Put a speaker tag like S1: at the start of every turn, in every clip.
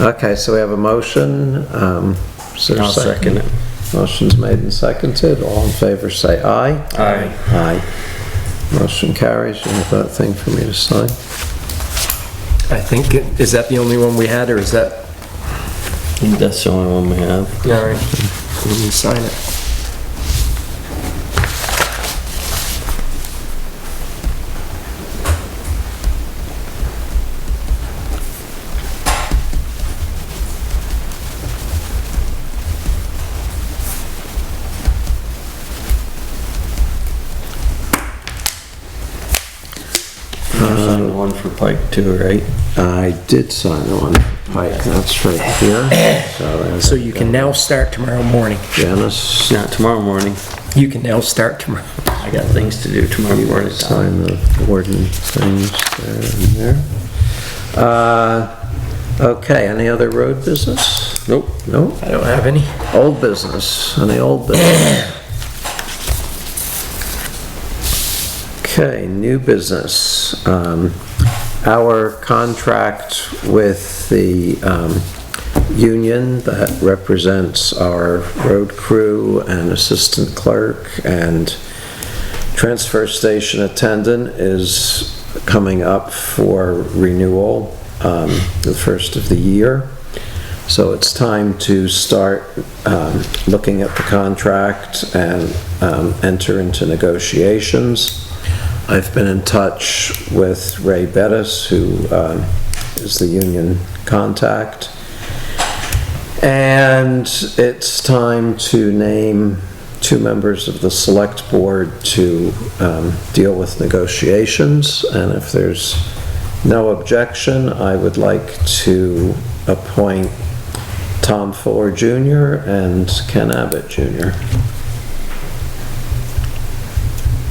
S1: Okay, so we have a motion. um, is there a
S2: I'll second it.
S1: Motion's made and seconded. All in favor, say aye.
S2: Aye.
S1: Aye. Motion carries. You have that thing for me to sign?
S3: I think, it- is that the only one we had, or is that,
S2: That's the only one we have.
S3: all right, let me sign it.
S2: Sign the one for Pike too, right?
S1: I did sign the one, Pike, that's right here. So there's
S3: So you can now start tomorrow morning.
S1: Janice,
S2: Not tomorrow morning.
S3: You can now start tomorrow.
S2: I got things to do tomorrow morning.
S1: sign the warden things there and there. Uh, Okay, any other road business?
S2: Nope.
S1: No?
S3: I don't have any.
S1: Old business, any old business? Okay, new business. Um, Our contract with the um, union that represents our road crew and assistant clerk and transfer station attendant is coming up for renewal um, the first of the year. So it's time to start um, looking at the contract and um, enter into negotiations. I've been in touch with Ray Bettis, who um, is the union contact. And it's time to name two members of the select board to um, deal with negotiations. And if there's no objection, I would like to appoint Tom Fuller Jr. and Ken Abbott Jr.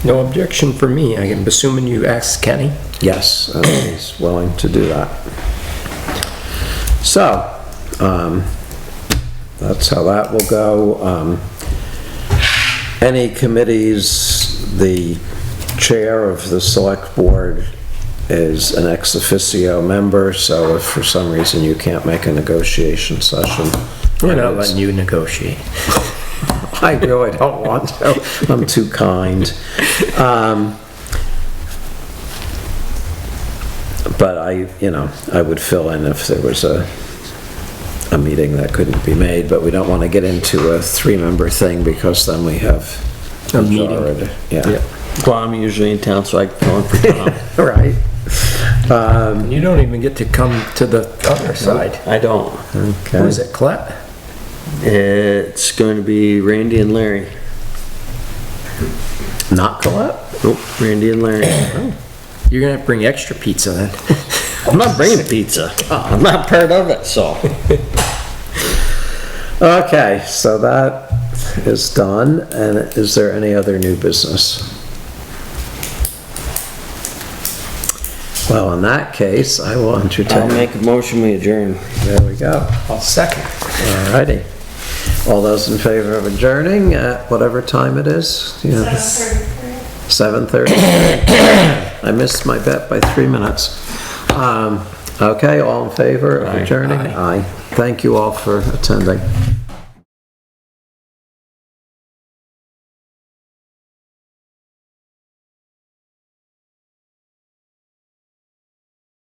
S3: No objection for me. I am assuming you asked Kenny.
S1: Yes, and he's willing to do that. So, um, that's how that will go. Um, any committees, the chair of the select board is an ex officio member, so if for some reason you can't make a negotiation session.
S3: We're not letting you negotiate.
S1: I really don't want to. I'm too kind. Um, But I, you know, I would fill in if there was a, a meeting that couldn't be made, but we don't want to get into a three-member thing because then we have.
S3: A meeting.
S1: majority. Yeah,
S2: Well, I'm usually in town, so I can phone for Tom.
S1: all right.
S3: You don't even get to come to the other side.
S2: I don't.
S3: Who is
S1: Okay.
S3: it, Clett?
S2: It's going to be Randy and Larry.
S1: Not Colette?
S2: Nope, Randy and Larry.
S3: You're gonna have to bring extra pizza then.
S2: I'm not bringing pizza. I'm not part of it, so.
S1: Okay, so that is done, and is there any other new business? Well, in that case, I will
S2: I'll
S1: entertain,
S2: make a motion, we adjourn.
S1: there we go,
S3: I'll second.
S1: all righty. All those in favor of adjourning at whatever time it is? Seven thirty. I missed my bet by three minutes. Um, Okay, all in favor of adjourning? Aye. Thank you all for attending.